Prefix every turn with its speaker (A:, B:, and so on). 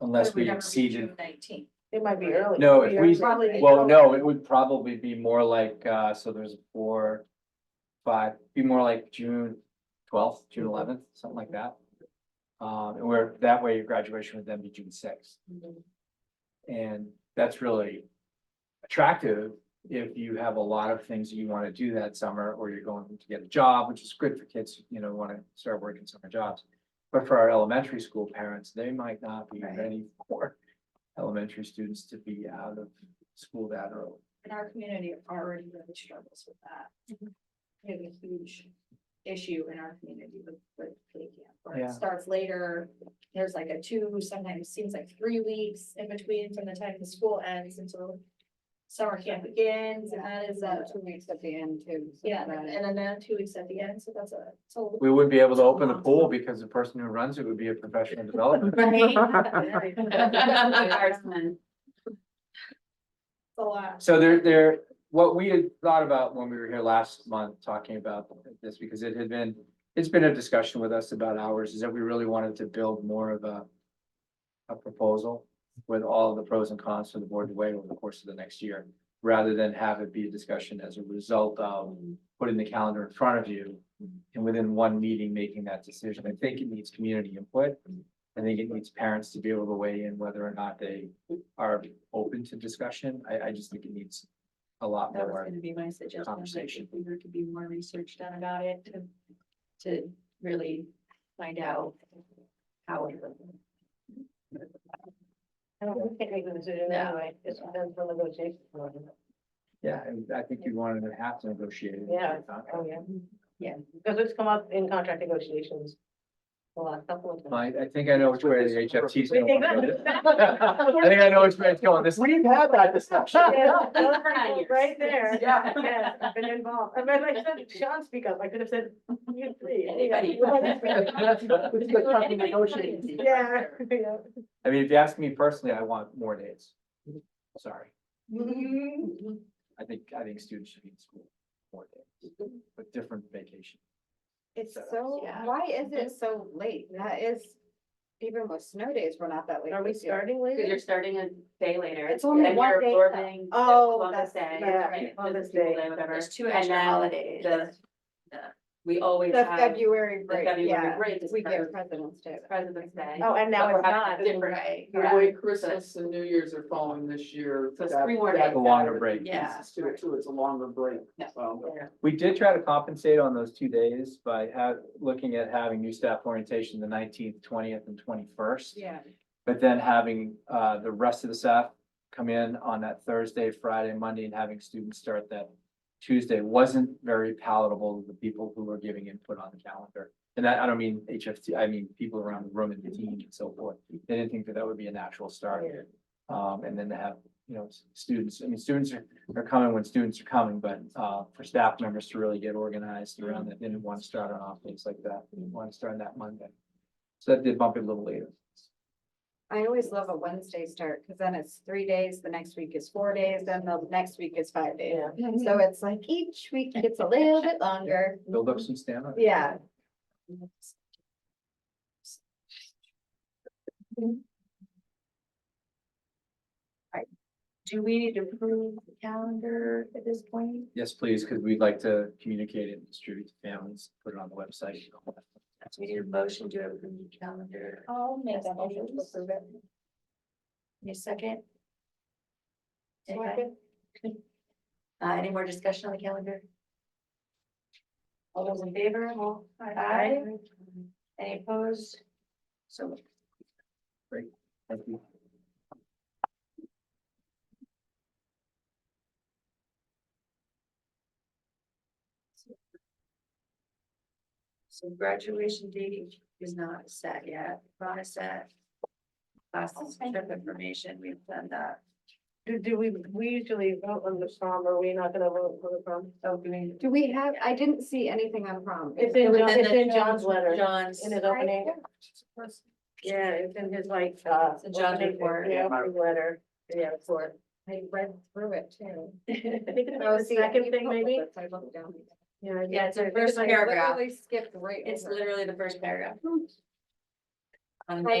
A: unless
B: Would
A: we
B: never be
A: exceeded.
B: June 19th.
C: It might be early.
A: No, if we-
C: Probably-
A: Well, no, it would probably be more like, uh, so there's four, five, be more like June twelfth, June eleventh, something like that. Um, and where, that way your graduation would then be June sixth, and that's really attractive if you have a lot of things that you want to do that summer, or you're going to get a job, which is good for kids, you know, want to start working summer jobs. But for our elementary school parents, they might not be
B: Right.
A: ready for elementary students to be out of school that early.
B: And our community already really struggles with that. We have a huge issue in our community with, with day camp, where
A: Yeah.
B: it starts later. There's like a two, sometimes seems like three weeks in between from the time the school ends until summer camp begins, and that is a,
C: Two weeks at the end too. so
B: yeah,
C: that-
B: and then that two weeks at the end, so that's a, so.
A: We wouldn't be able to open the pool because the person who runs it would be a professional developer.
B: It's
C: Ours,
B: a lot.
A: So there, there, what we had thought about when we were here last month talking about this, because it had been, it's been a discussion with us about ours, is that we really wanted to build more of a a proposal with all of the pros and cons for the board to weigh over the course of the next year, rather than have it be a discussion as a result of putting the calendar in front of you and within one meeting making that decision. I think it needs community input. I think it needs parents to be able to weigh in whether or not they are open to discussion. I, I just think it needs a lot
D: That was
A: more.
D: gonna be my suggestion, like
A: conversation.
D: if we were to be more research done about it to, to really find out how it would.
C: I don't think we can do it anyway, it's done for negotiation.
A: Yeah, and I think you wanted to have to negotiate. it.
C: Yeah. Oh, yeah.
D: Yeah.
C: Because it's come up in contract negotiations. The last couple of times.
A: I, I think I know which way the HFT is going.
C: We-
A: I think I know which way it's going. This, we've had that discussion.
C: Yeah, those
D: For nine
C: people
D: years.
C: Right there.
D: Yeah.
C: Yes, I've been involved. I mean, I said, Sean speak up. I could have said, you three.
D: Anybody. Oh, negotiating.
C: Yeah. yeah.
A: I mean, if you ask me personally, I want more days. Sorry, I think, I think students should be in school more days, with different vacation.
E: It's
A: setups.
E: so,
D: Yeah.
E: why is it so late? That is, even with snow days, we're not that late.
C: Are we
E: this year.
C: starting
D: Because
C: later?
D: you're starting a day later.
E: It's only
D: and
E: one
D: you're
E: day, though.
D: absorbing the
E: Oh,
D: Columbus
E: that's-
D: Day,
C: yeah,
D: right,
C: Columbus
D: People
C: Day.
D: Day, whatever.
B: There's two
D: And
B: extra
D: then
B: holidays.
D: the- the- We always
E: The
D: have the
E: February break,
D: February
E: yeah.
D: break is
E: We
D: Pres-
E: get President's Day.
D: President's Day.
C: Oh, and now
D: But
C: it's
D: we're having
C: not.
D: a Different way.
F: The way Christmas and New Year's are falling this year.
D: So it's
F: that-
D: three more
F: that
D: days.
A: A longer break.
D: Yeah.
F: pieces To it too, it's a longer break,
D: Yeah.
F: so.
A: We did try to compensate on those two days by have, looking at having new staff orientation the nineteenth, twentieth, and twenty-first.
B: Yeah.
A: But then having, uh, the rest of the staff come in on that Thursday, Friday, Monday, and having students start that Tuesday wasn't very palatable to the people who were giving input on the calendar. And I, I don't mean HFT, I mean people around the room and the team and so forth. They didn't think that that would be a natural start. Um, and then to have, you know, s- students, I mean, students are, are coming when students are coming, but, uh, for staff members to really get organized around that, they didn't want to start on off days like that. They didn't want to start on that Monday. So that did bump it a little later.
E: I always love a Wednesday start, because then it's three days, the next week is four days, then the next week is five days.
C: Yeah.
E: So it's like each week gets a little bit longer.
A: Build up some stamina.
E: Yeah.
D: Do we need to approve the calendar at this point?
A: Yes, please, because we'd like to communicate it, and distribute to families, put it on the website.
D: Do we need a motion to approve the calendar?
B: I'll make that motion to approve it.
D: Any second? Okay. Uh, any more discussion on the calendar? All those in favor? All- Aye. Any opposed? So moved.
A: Thank you.
D: so graduation date is not set yet. Ron is set. Last trip information, we've done that.
C: Do, do we, we usually vote on the prom, are we not gonna vote for the prom?
D: Oh, do we?
E: Do we have, I didn't see anything on prom.
C: It's in, John-
D: Within
C: it's
D: the
C: in John's letter,
D: John's,
C: in his opening. Yeah, it's in his like, uh.
D: It's in John's
C: opening-
D: report.
C: Yeah, opening letter, yeah, report.
E: I read through it too.
C: I think it's the second thing maybe.
E: I looked down.
C: Yeah, I
D: yeah, it's the
C: think
D: first
E: I
D: paragraph.
E: literally Skipped right.
D: It's
E: over it.
D: literally the first paragraph. On